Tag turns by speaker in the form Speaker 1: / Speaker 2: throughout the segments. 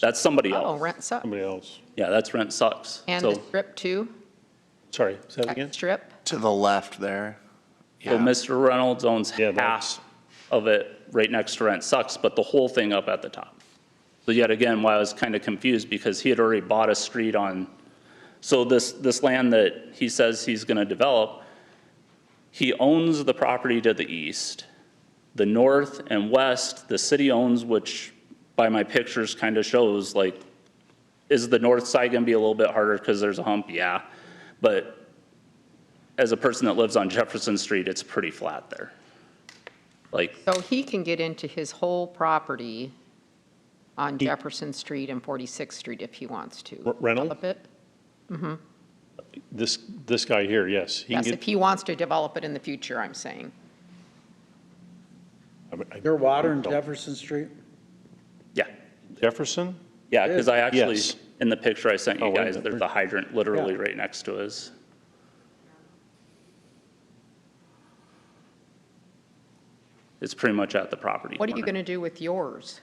Speaker 1: That's somebody
Speaker 2: Oh,
Speaker 1: else.
Speaker 2: rent suck.
Speaker 3: Somebody else.
Speaker 1: Yeah, that's Rent Sucks.
Speaker 2: And the
Speaker 1: So,
Speaker 2: strip too?
Speaker 3: Sorry, say that again?
Speaker 2: Strip?
Speaker 4: To the left there.
Speaker 1: so Mr. Reynolds owns
Speaker 3: Yeah,
Speaker 1: half of it right next to Rent Sucks, but the whole thing up at the top. So yet again, why I was kind of confused, because he had already bought a street on, so this, this land that he says he's going to develop, he owns the property to the east. The north and west, the city owns, which by my pictures kind of shows, like, is the north side going to be a little bit harder because there's a hump? Yeah. But as a person that lives on Jefferson Street, it's pretty flat there. Like,
Speaker 2: So he can get into his whole property on Jefferson Street and 46th Street if he wants to.
Speaker 3: R- Reynolds?
Speaker 2: Develop it?
Speaker 3: This, this guy here, yes. He can
Speaker 2: Yes, if
Speaker 3: get,
Speaker 2: he wants to develop it in the future, I'm saying.
Speaker 3: I mean, I-
Speaker 5: Your water in Jefferson Street?
Speaker 1: yeah,
Speaker 3: Jefferson?
Speaker 1: yeah, because I actually,
Speaker 3: Yes.
Speaker 1: in the picture I sent
Speaker 3: Oh,
Speaker 1: you
Speaker 3: wait a
Speaker 1: guys,
Speaker 3: minute.
Speaker 1: there's a hydrant literally
Speaker 5: Yeah.
Speaker 1: right next to us. It's pretty much at the property
Speaker 2: What are you
Speaker 1: corner.
Speaker 2: going to do with yours?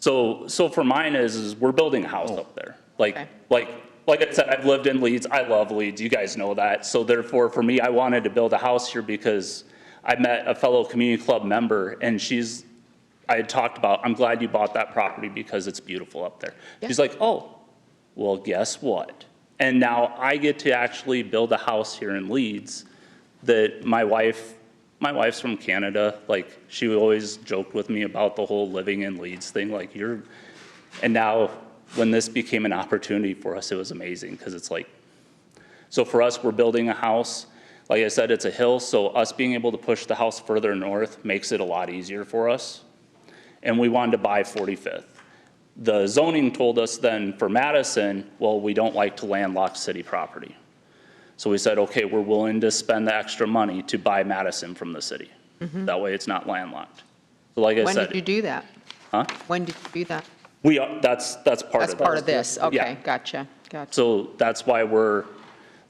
Speaker 1: So, so for mine is, is we're building a house up there. Like,
Speaker 2: Okay.
Speaker 1: like, like I said, I've lived in Leeds, I love Leeds, you guys know that. So therefore, for me, I wanted to build a house here because I met a fellow community club member and she's, I had talked about, I'm glad you bought that property because it's beautiful up there. She's
Speaker 2: Yeah.
Speaker 1: like, oh, well, guess what? And now I get to actually build a house here in Leeds that my wife, my wife's from Canada. Like, she always joked with me about the whole living in Leeds thing, like, you're, and now when this became an opportunity for us, it was amazing because it's like, so for us, we're building a house. Like I said, it's a hill, so us being able to push the house further north makes it a lot easier for us. And we wanted to buy 45th. The zoning told us then for Madison, well, we don't like to landlock city property. So we said, okay, we're willing to spend the extra money to buy Madison from the city. That way it's not landlocked. So like I
Speaker 2: Mm-hmm. When
Speaker 1: said.
Speaker 2: did you do that?
Speaker 1: Huh?
Speaker 2: When did you do that?
Speaker 1: We, are- that's, that's part of
Speaker 2: That's
Speaker 1: this.
Speaker 2: part of this.
Speaker 1: Yeah.
Speaker 2: Okay, gotcha, gotcha.
Speaker 1: So that's why we're,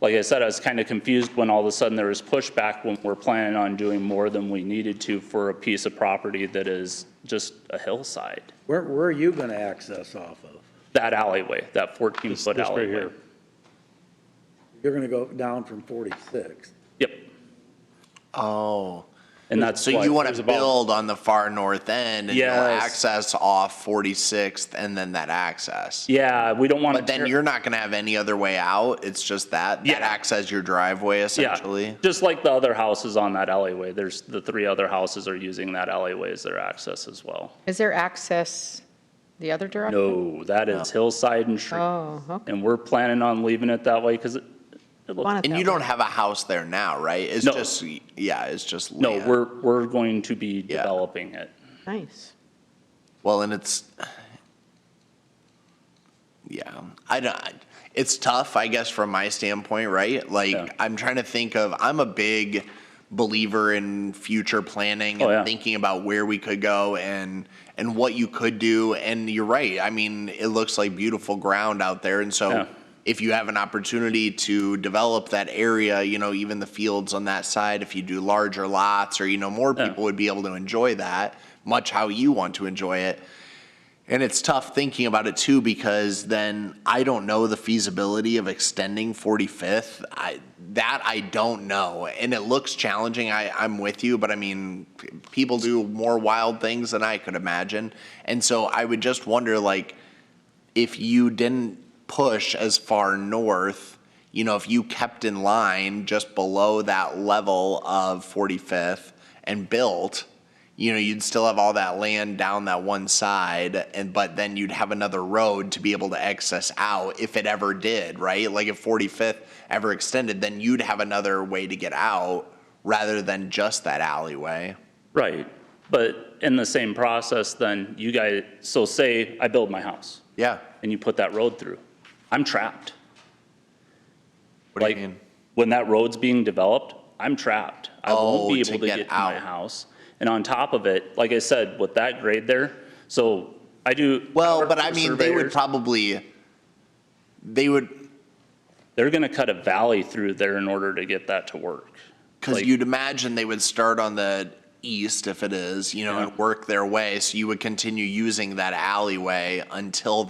Speaker 1: like I said, I was kind of confused when all of a sudden there was pushback when we're planning on doing more than we needed to for a piece of property that is just a hillside.
Speaker 5: Where, where are you gonna access off of?
Speaker 1: That alleyway, that
Speaker 3: This,
Speaker 1: 14-foot
Speaker 3: this right
Speaker 1: alleyway.
Speaker 3: here.
Speaker 5: You're gonna go down from forty-six.
Speaker 1: Yep,
Speaker 4: Oh.
Speaker 1: and that's
Speaker 4: So you
Speaker 1: why,
Speaker 4: want
Speaker 3: there's
Speaker 4: to
Speaker 3: about-
Speaker 4: build on the far north end and you'll
Speaker 1: Yes.
Speaker 4: access off 46th and then that access.
Speaker 1: yeah, we don't want to.
Speaker 4: But then you're not going to have any other way out. It's just that,
Speaker 1: Yeah.
Speaker 4: that access your driveway
Speaker 1: Yeah,
Speaker 4: essentially.
Speaker 1: just like the other houses on that alleyway, there's, the three other houses are using that alleyway as their access as well.
Speaker 2: Is there access the other direction?
Speaker 1: No, that is hillside and tree.
Speaker 2: Oh, okay.
Speaker 1: And we're planning on leaving it that way because it, it looks.
Speaker 2: Want it
Speaker 4: And
Speaker 2: that
Speaker 4: you
Speaker 2: way.
Speaker 4: don't have a house there now, right? It's
Speaker 1: No.
Speaker 4: just, yeah, it's just
Speaker 1: No,
Speaker 4: land.
Speaker 1: we're, we're going to be
Speaker 4: Yeah.
Speaker 1: developing it.
Speaker 2: Nice.
Speaker 4: Well, and it's, yeah, I don't, it's tough, I guess, from my standpoint, right?
Speaker 1: Yeah.
Speaker 4: Like, I'm trying to think of, I'm a big believer in future planning
Speaker 1: Oh, yeah.
Speaker 4: and thinking about where we could go and, and what you could do. And you're right. I mean, it looks like beautiful ground out there. And
Speaker 1: Yeah.
Speaker 4: so if you have an opportunity to develop that area, you know, even the fields on that side, if you do larger lots or, you know, more
Speaker 1: Yeah.
Speaker 4: people would be able to enjoy that, much how you want to enjoy it. And it's tough thinking about it too, because then I don't know the feasibility of extending 45th. I, that I don't know. And it looks challenging. I, I'm with you, but I mean, p- people do more wild things than I could imagine. And so I would just wonder, like, if you didn't push as far north, you know, if you kept in line just below that level of 45th and built, you know, you'd still have all that land down that one side, and but then you'd have another road to be able to access out if it ever did, right? Like if 45th ever extended, then you'd have another way to get out rather than just that alleyway.
Speaker 1: Right. But in the same process, then you guys, so say I build my house
Speaker 4: Yeah.
Speaker 1: and you put that road through, I'm trapped.
Speaker 4: What do
Speaker 1: Like,
Speaker 4: you mean?
Speaker 1: When that road's being developed, I'm trapped. I won't
Speaker 4: Oh,
Speaker 1: be
Speaker 4: to
Speaker 1: able to
Speaker 4: get
Speaker 1: get to my
Speaker 4: out.
Speaker 1: house. And on top of it, like I said, with that grade there, so I do.
Speaker 4: Well,
Speaker 1: work
Speaker 4: but
Speaker 1: for
Speaker 4: I mean, they
Speaker 1: surveyors.
Speaker 4: would probably, they would,
Speaker 1: They're gonna cut a valley through there in order to get that to work.
Speaker 4: Because
Speaker 1: Like-
Speaker 4: you'd imagine they would start on the east if it is, you know,
Speaker 1: Yeah.
Speaker 4: and work their way. So you would continue using that alleyway until